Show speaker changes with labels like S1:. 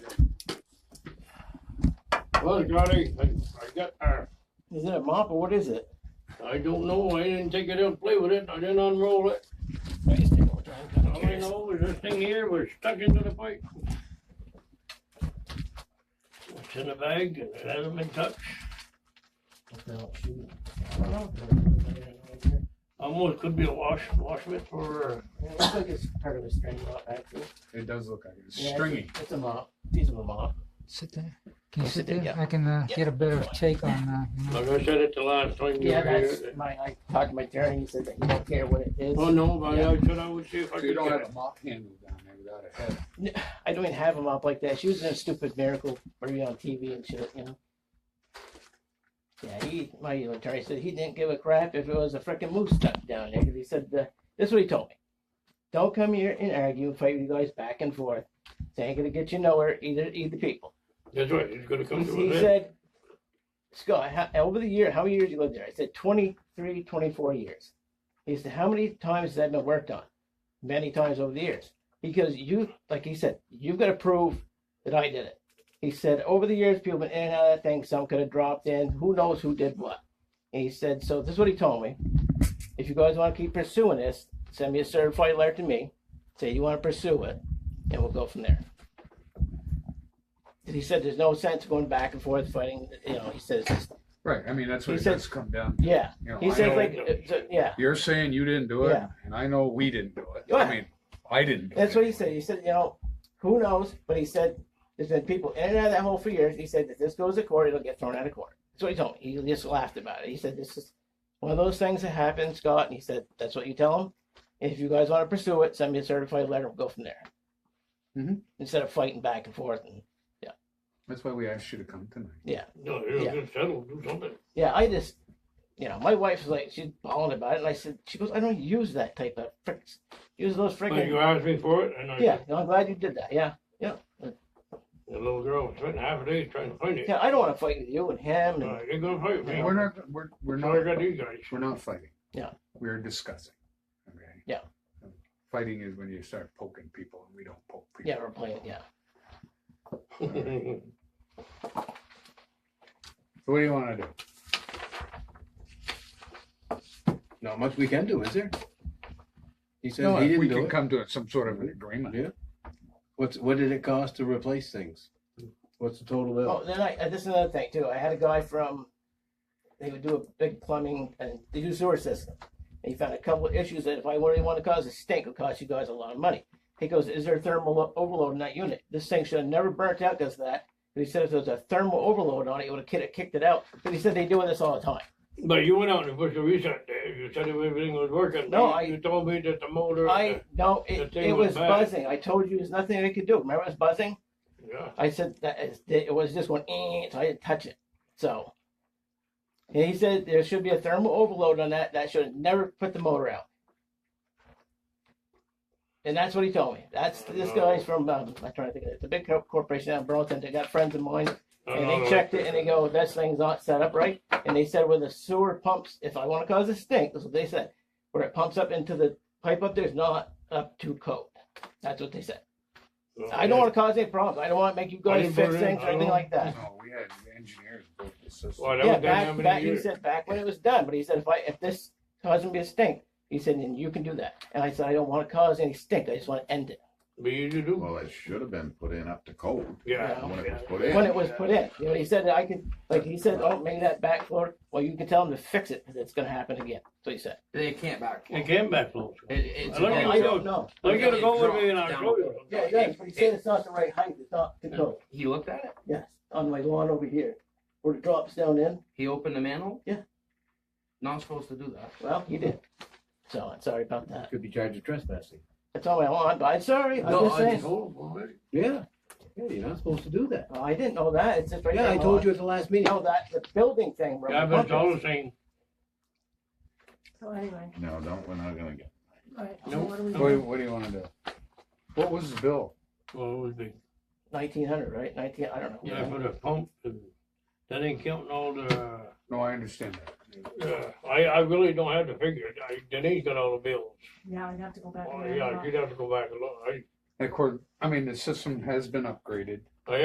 S1: Well, Scotty, I, I got, uh,
S2: Is it a mop or what is it?
S1: I don't know, I didn't take it out, play with it, I didn't unroll it. All I know is this thing here was stuck into the pipe. It's in a bag and it hasn't been touched. Almost could be a wash, wash mitt for, uh,
S2: It looks like it's part of a string mop, actually.
S3: It does look like it. It's
S2: Yeah, it's a-
S3: stringy.
S2: It's a mop, piece of a mop.
S4: Sit there. Can
S2: Oh,
S4: you sit
S2: sit there,
S4: there?
S2: yeah.
S4: I can uh, get a better take on uh, you know,
S1: like I said it the last time you
S2: Yeah,
S1: were
S2: that's
S1: here.
S2: my, I talked to my attorney, he said that he don't care what it is.
S1: Oh, no, but I said I would see if I
S3: So
S1: could
S3: you don't
S1: get
S3: have
S1: it.
S3: a mop handle down there without a head.
S2: I don't even have a mop like that. She was in a stupid miracle movie on TV and shit, you know. Yeah, he, my attorney said he didn't give a crap if it was a frickin' moose stuck down there 'cause he said, uh, this is what he told me. Don't come here and argue, fight with you guys back and forth. It ain't gonna get you nowhere, either, either people.
S1: That's right, it's gonna come to
S2: He
S1: an end.
S2: said, Scott, how, over the year, how many years you lived there? I said, 23, 24 years. He said, how many times has that been worked on? Many times over the years. Because you, like he said, you've got to prove that I did it. He said, over the years, people been in and out of that thing. Some could have dropped in. Who knows who did what? And he said, so this is what he told me. If you guys want to keep pursuing this, send me a certified letter to me. Say you want to pursue it, and we'll go from there. And he said, there's no sense going back and forth fighting. You know, he says,
S3: Right. I mean, that's what
S2: He
S3: it
S2: said-
S3: does come down. to.
S2: yeah.
S3: You know,
S2: He
S3: I
S2: says,
S3: know
S2: like, uh, so- yeah.
S3: you're saying you didn't do it,
S2: Yeah.
S3: and I know we didn't do it.
S2: Yeah.
S3: I mean, I didn't. Do
S2: That's
S3: it
S2: what he said. He said, you know, who knows? But he said, there's been people in and out of that hole for years. He said, if this goes to court, it'll get thrown out of court. That's what he told me. He just laughed about it. He said, this is one of those things that happen, Scott. And he said, that's what you tell him. If you guys want to pursue it, send me a certified letter. We'll go from there.
S3: Mhm.
S2: Instead of fighting back and forth. And
S3: That's why we asked you to come tonight.
S1: No, it'll
S2: Yeah.
S1: get settled, do something.
S2: yeah, I just, you know, my wife's like, she's bawling about it. And I said, she goes, I don't use that type of fricks. Use those
S1: But you
S2: frickin'.
S1: asked me for it and I,
S2: Yeah,
S1: said,
S2: no, I'm glad you did that. Yeah.
S1: the little girl spent half a day trying to find it.
S2: Yeah, I don't want to fight with you and him. And
S1: Uh, You're gonna fight me.
S3: We're not. We're, we're
S1: Now I
S3: not.
S1: got these guys.
S3: We're not fighting.
S2: Yeah.
S3: We're discussing. Okay.
S2: Yeah.
S3: Fighting is when you start poking people, and we don't poke people.
S2: yeah, we're playing. Yeah,
S1: Well,
S3: So what do you want to do?
S5: Not much we can do, is there? He said
S3: No,
S5: he
S3: if
S5: didn't
S3: we Mm-hmm.
S5: do
S3: can
S5: it.
S3: come to some sort of an agreement.
S5: Yeah. What's what did it cost to replace things? What's the total bill?
S2: Oh, then I, uh, this is another thing too. I had a guy from, they would do a big plumbing and they do sewer system. And he found a couple of issues that if I really want to cause a stink, it'll cost you guys a lot of money. He goes, is there thermal o- overload in that unit? This thing should have never burnt out because of that. And he said if there was a thermal overload on it, it would have kid- kicked it out. But he said they doing this all the time.
S1: But you went out and pushed the reset there, you said everything was working.
S2: No,
S1: You-
S2: I-
S1: You told me that the motor.
S2: I no,
S1: The
S2: it,
S1: thing
S2: it
S1: was
S2: was
S1: bad.
S2: buzzing. I told you there's nothing they could do. Remember it was buzzing?
S1: Yeah,
S2: I said that is- it was just going, eh, so I didn't touch it. So and he said there should be a thermal overload on that. That should have never put the motor out. And that's what he told me. That's this guy's from um, I'm trying to think of it. It's a big co- corporation out in Burlington. They got friends of mine, and they
S1: Oh,
S2: checked it and they go, "This thing's not set up right." And they said, "Where the sewer pumps, if I want to cause a stink, that's what they said. Where it pumps up into the pipe up there is not up to code." That's what they said. I don't want to cause any problems. I don't want to make you
S1: I
S2: guys
S1: didn't
S2: fix
S1: vote in.
S2: things
S1: I
S2: or anything
S1: don't-
S2: like that.
S3: No, we had engineers build the system.
S1: Well, that
S2: Yeah,
S1: was done how
S2: back,
S1: many
S2: back, he
S1: years?
S2: said back when it was done, but he said, if I, if this causes me a stink, he said, then you can do that. And I said, I don't want to cause any stink. I just want to end it
S1: But you do do.
S6: Well, it should have been put in up to code
S1: Yeah.
S6: when it was
S1: yeah.
S6: put
S2: when
S6: in.
S2: it was put in. You know, he said that I could, like he said, oh, make that back floor. Well, you can tell him to fix it because it's going to happen again. So he said,
S7: They can't back.
S1: It came back close.
S7: It, it's
S1: I don't-
S7: it
S2: I don't know.
S1: I gotta
S7: it
S1: go with
S7: dropped
S1: me and I'll
S7: down.
S1: show you.
S2: Yeah, he does, but he said it's not the right height. It's not the code.
S7: He looked at it.
S2: Yes, on my lawn over here where it drops down in.
S7: He opened the manhole.
S2: Yeah.
S7: Not supposed to do that.
S2: Well, he did. So I'm sorry about that.
S5: Could be charged with trespassing.
S2: That's all I want, but I'm sorry. I'm
S7: No,
S2: just
S7: I
S2: saying.
S7: just-
S5: Yeah. Yeah, you're not supposed to do that.
S2: Oh, I didn't know that. It's just right
S5: Yeah,
S2: there
S5: I
S2: on
S5: told
S2: the
S5: you at the last
S2: line.
S5: meeting.
S2: No, that the building thing. where
S1: Yeah,
S2: we
S1: but it's all
S2: bumped
S1: the same.
S8: So anyway,
S6: No, don't, we're not gonna get.
S8: all right, so
S1: Nope.
S8: what do we
S3: What do,
S8: do?
S3: you- what do you want to do? What was the bill?
S1: Well, it would be,
S2: it. 1900, right? 19. I don't know.
S1: yeah, for the pump and that ain't counting all the,
S3: No, I understand that.
S1: uh, I, I really don't have to figure it. I- Denise got all the bills.
S8: Yeah, I'd have to go back.
S1: Oh,
S8: and
S1: yeah,
S8: add
S1: you'd
S8: it
S1: have
S8: up.
S1: to go back and look. I,
S3: Of course, I mean, the system has been upgraded.